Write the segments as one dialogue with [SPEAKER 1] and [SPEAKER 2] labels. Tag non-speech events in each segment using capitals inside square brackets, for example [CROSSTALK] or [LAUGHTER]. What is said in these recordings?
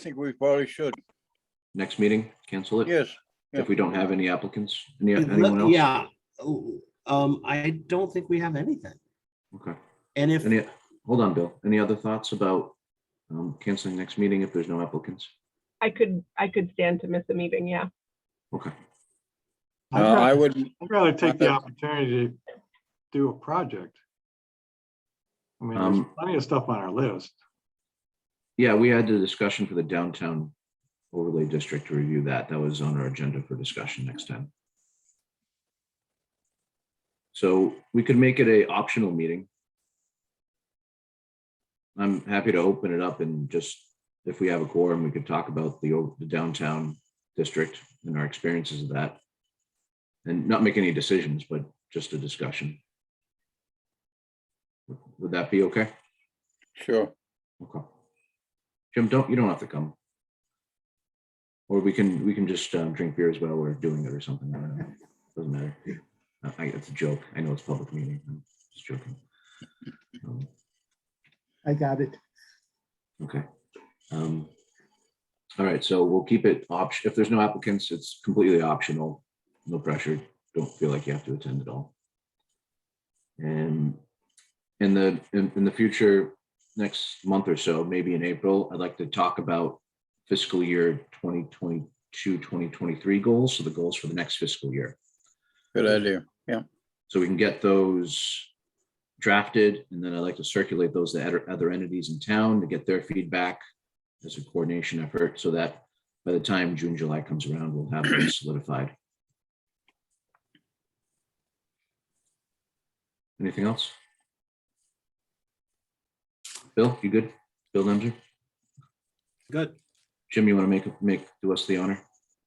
[SPEAKER 1] think we probably should.
[SPEAKER 2] next meeting, cancel it
[SPEAKER 1] Yes,
[SPEAKER 2] if we don't have any applicants, any, anyone else?
[SPEAKER 3] Yeah, um, I don't think we have anything.
[SPEAKER 2] Okay,
[SPEAKER 3] And if,
[SPEAKER 2] any, hold on, Bill, any other thoughts about um, canceling next meeting if there's no applicants?
[SPEAKER 4] I could, I could stand to miss a meeting, yeah.
[SPEAKER 2] Okay,
[SPEAKER 1] uh,
[SPEAKER 5] I'd
[SPEAKER 1] I
[SPEAKER 5] rather-
[SPEAKER 1] would,
[SPEAKER 5] I'd rather take the opportunity to do a project. I mean, there's
[SPEAKER 2] Um,
[SPEAKER 5] plenty of stuff on our list.
[SPEAKER 2] yeah, we had the discussion for the downtown overlay district to review that, that was on our agenda for discussion next time. So we could make it a optional meeting. I'm happy to open it up and just, if we have a quorum, we could talk about the o- the downtown district and our experiences of that. And not make any decisions, but just a discussion. Would that be okay?
[SPEAKER 1] sure.
[SPEAKER 2] Okay. Jim, don't, you don't have to come. Or we can, we can just um, drink beers while we're doing it or something. I don't know. Doesn't matter. I- I, it's a joke. I know it's a public meeting. I'm just joking. Um,
[SPEAKER 6] I got it.
[SPEAKER 2] Okay. Um, All right, so we'll keep it option. If there's no applicants, it's completely optional. No pressure. Don't feel like you have to attend at all. And in the, in, in the future, next month or so, maybe in April, I'd like to talk about fiscal year 2022, 2023 goals. So the goals for the next fiscal year.
[SPEAKER 1] Good idea.
[SPEAKER 2] So we can get those drafted, and then I'd like to circulate those to other- other entities in town to get their feedback as a coordination effort, so that by the time June, July comes around, we'll have those solidified. Anything else? Bill, you good? Bill Nemser?
[SPEAKER 3] good,
[SPEAKER 2] Jim, you want to make, make, do us the honor?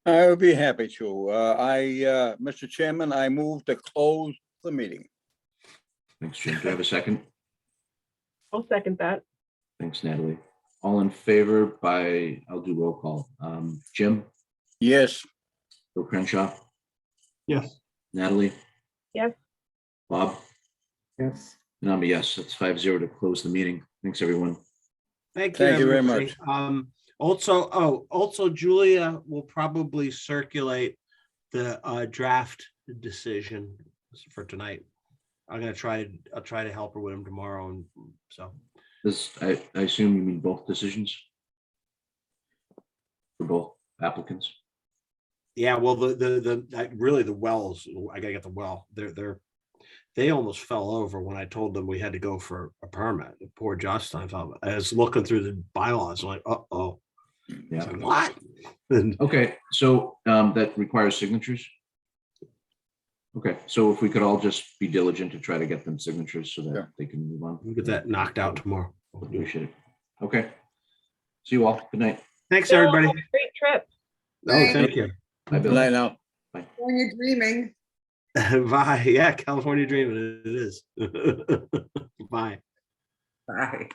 [SPEAKER 1] I would be happy to. Uh, I, uh, Mr. Chairman, I move to close the meeting.
[SPEAKER 2] Thanks, Jim. Do I have a second?
[SPEAKER 4] I'll second that.
[SPEAKER 2] Thanks, Natalie. All in favor by, I'll do roll call. Um, Jim?
[SPEAKER 1] Yes,
[SPEAKER 2] Bill Crenshaw,
[SPEAKER 5] Yes.
[SPEAKER 2] Natalie?
[SPEAKER 4] Yes.
[SPEAKER 2] Bob?
[SPEAKER 6] Yes.
[SPEAKER 2] And I'm a yes, that's five zero to close the meeting. Thanks, everyone.
[SPEAKER 3] thank you.
[SPEAKER 1] Thank you very
[SPEAKER 3] everybody.
[SPEAKER 1] much.
[SPEAKER 3] Um, also, oh, also Julia will probably circulate the uh draft decision for tonight. I'm gonna try, I'll try to help her with him tomorrow, and so,
[SPEAKER 2] This, I, I assume you mean both decisions? For both applicants?
[SPEAKER 3] yeah, well, the, the, the, that- really the wells, I gotta get the well, they're, they're. They almost fell over when I told them we had to go for a permit, poor Josh Steinfeld, I was looking through the bylaws, like, uh-oh.
[SPEAKER 2] Yeah.
[SPEAKER 3] What? [LAUGHS] And
[SPEAKER 2] Okay, so um, that requires signatures? Okay, so if we could all just be diligent to try to get them signatures so
[SPEAKER 1] Yeah.
[SPEAKER 2] that they can move on.
[SPEAKER 3] we'll get that knocked out tomorrow.
[SPEAKER 2] Appreciate it. Okay. See you all. Good night.
[SPEAKER 3] Thanks,
[SPEAKER 4] Bill,
[SPEAKER 3] everybody.
[SPEAKER 4] have a Great trip.
[SPEAKER 3] No, thank you.
[SPEAKER 2] Bye,
[SPEAKER 1] good
[SPEAKER 2] Bill.
[SPEAKER 1] night now.
[SPEAKER 7] When you're dreaming.
[SPEAKER 3] [LAUGHS] Bye. Yeah, California dreaming it is. Bye.
[SPEAKER 7] Bye.